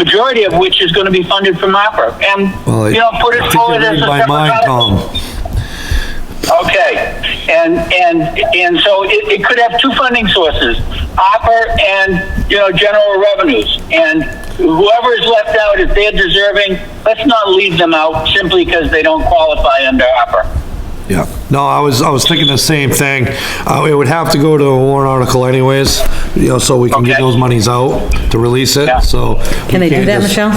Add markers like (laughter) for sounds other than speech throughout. majority of which is going to be funded from opera. And, Well, you know, put it forward as a By separate mine, article. Tom. Okay, and, and, and so it, it could have two funding sources, opera and, you know, general revenues. And whoever is left out, if they're deserving, let's not leave them out simply because they don't qualify under opera. Yeah. No, I was, I was thinking the same thing. Uh, it would have to go to a warrant article anyways, you know, so we can get Okay. those monies out to release Yeah. it, so. Can they do that, Michelle?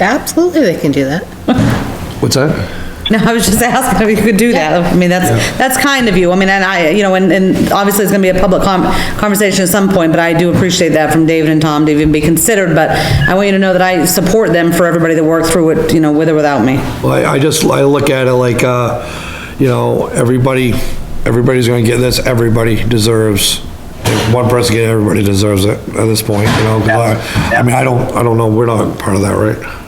Absolutely, they can do that. What's that? No, I was just (laughs) asking if you could do that. I mean, that's, that's kind of you. I mean, and I, you know, and, and obviously it's gonna be a public com- conversation at some point, but I do appreciate that from David and Tom to even be considered, but I want you to know that I support them for everybody that worked through it, you know, with or without me. Well, I I just, I look at it like, uh, you know, everybody, everybody's gonna get this, everybody deserves. If one person get, it, everybody deserves it at this point, you know, 'cause I, I mean, I don't, I don't know, we're not part of that, right?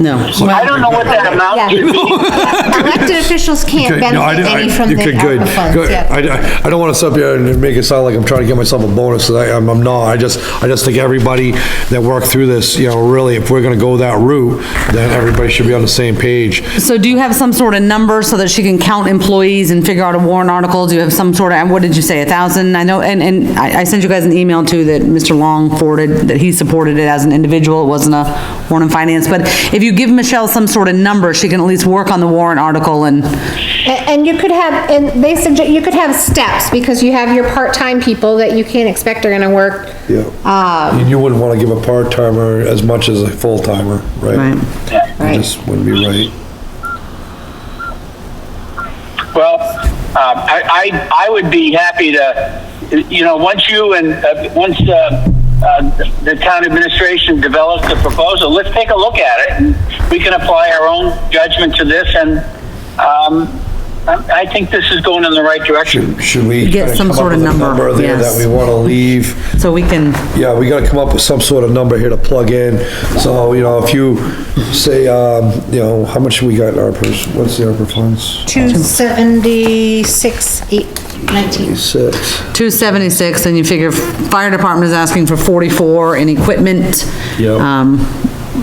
No. I don't know what that amounts to. (laughs) Elected officials can't Okay, no, I benefit didn't- I- any from the okay, good, ARPA funds, good. yeah. I, I- I don't want to sit up here and make it sound like I'm trying to get myself a bonus, 'cause I, I'm I'm not. I just, I just think everybody that worked through this, you know, really, if we're gonna go that route, then everybody should be on the same page. So do you have some sort of number so that she can count employees and figure out a warrant article? Do you have some sort of, what did you say, a thousand? I know, and, and I, I sent you guys an email too that Mr. Long forwarded, that he supported it as an individual. It wasn't a warrant and finance, but if you give Michelle some sort of number, she can at least work on the warrant article and, A- And you could have, and they suggest, you could have steps, because you have your part-time people that you can't expect are gonna work. Yeah. And you wouldn't want to give a part-timer as much as a full-timer, right? Right. It just wouldn't be right. Well, uh, I, I, I would be happy to, you know, once you and, uh, once, uh, uh, the town administration develops the proposal, let's take a look at it. and We can apply our own judgment to this and, um, I, I think this is going in the right direction. Should we? Get kinda some come up sort of with a number, there yes. That we want to leave. so we can, Yeah, we gotta come up with some sort of number here to plug in. So, you know, if you say, um, you know, how much we got in ARPA, what's the ARPA funds? Two seventy-six, eight nineteen. Six. two seventy-six, and you figure fire department is asking for forty-four in equipment. Yep. Um,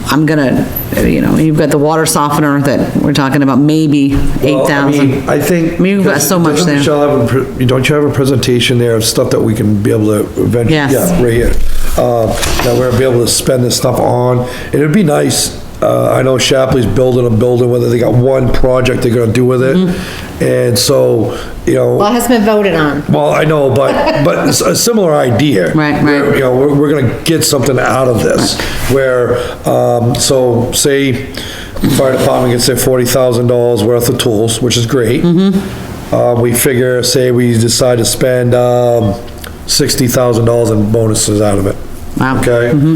I'm gonna, you know, you've got the water softener that we're talking about, maybe eight Well, I mean, thousand. I think. I mean, you've got so much Doesn't there. Michelle, have a pre- don't you have a presentation there of stuff that we can be able to eventually? Yes. Yeah, right here, uh, that we're gonna be able to spend this stuff on. And it'd be nice, uh, I know Shapley's building a building, whether they got one project they're gonna do with it. Mm-hmm. And so, you know. Well, it has been voted on. Well, I know, but, but it's a similar idea. Right, right. Where, You know, we're, we're gonna get something out of this, where, um, so, say, fire department gets their forty thousand dollars worth of tools, which is great. Mm-hmm. Uh, we figure, say, we decide to spend, um, sixty thousand dollars in bonuses out of it. Wow. Mm-hmm.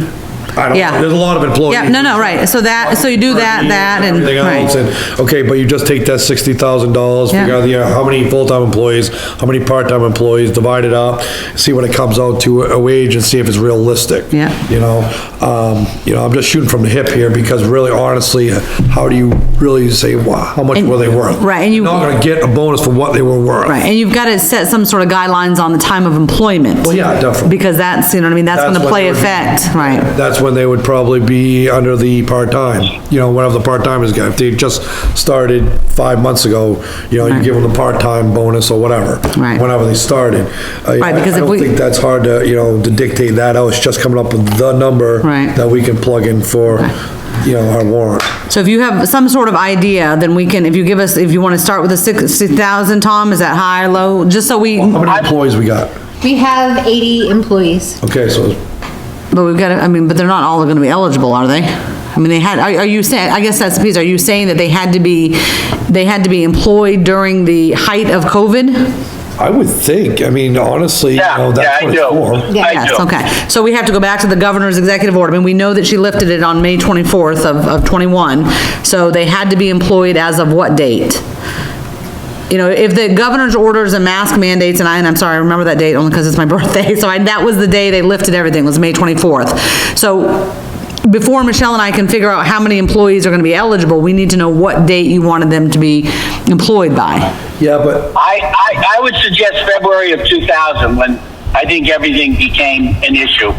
Okay? I don't, Yeah. there's a lot of employees. Yeah, no, no, right, so that, so you do that, that, and, Everything else, right. and, okay, but you just take that sixty thousand dollars, figure Yeah. out the, uh, how many full-time employees, how many part-time employees, divide it up, see what it comes out to a wage and see if it's realistic. Yeah. You know, um, you know, I'm just shooting from the hip here because really honestly, how do you really say, wow, how much were they worth? right, and you- You're Not gonna get a bonus for what they were worth. Right, and you've got to set some sort of guidelines on the time of employment. Well, yeah, definitely. Because that's, you know what I mean, that's That's gonna what play it would be. effect, right. That's when they would probably be under the part-time, you know, whatever the part-timers got. If they just started five months ago, you know, you give them the part-time bonus or whatever. Right. Whenever they started. I- Right, because I- I if don't we- think that's hard to, you know, to dictate that out. It's just coming up with the number. Right. That we can plug in for, you know, our warrant. So if you have some sort of idea, then we can, if you give us, if you wanna start with a sixty thousand, Tom, is that high, low, just so we, How many employees we got? We have eighty employees. Okay, so, but we've got to, I mean, but they're not all gonna be eligible, are they? I mean, they had, are, are you saying, I guess that's the piece, are you saying that they had to be, they had to be employed during the height of COVID? I would think, I mean, honestly, you know, Yeah, yeah, that's I what it's for. do. (laughs) I Yes, do. okay. So we have to go back to the governor's executive order. I mean, we know that she lifted it on May 24th of, of 21, so they had to be employed as of what date? You know, if the governor's orders and mask mandates, and I, and I'm sorry, I remember that date only because it's my (laughs) birthday, so I, that was the day they lifted everything, was May 24th. So before Michelle and I can figure out how many employees are gonna be eligible, we need to know what date you wanted them to be employed by. Yeah, but I, I, I would suggest February of 2000, when I think everything became an issue.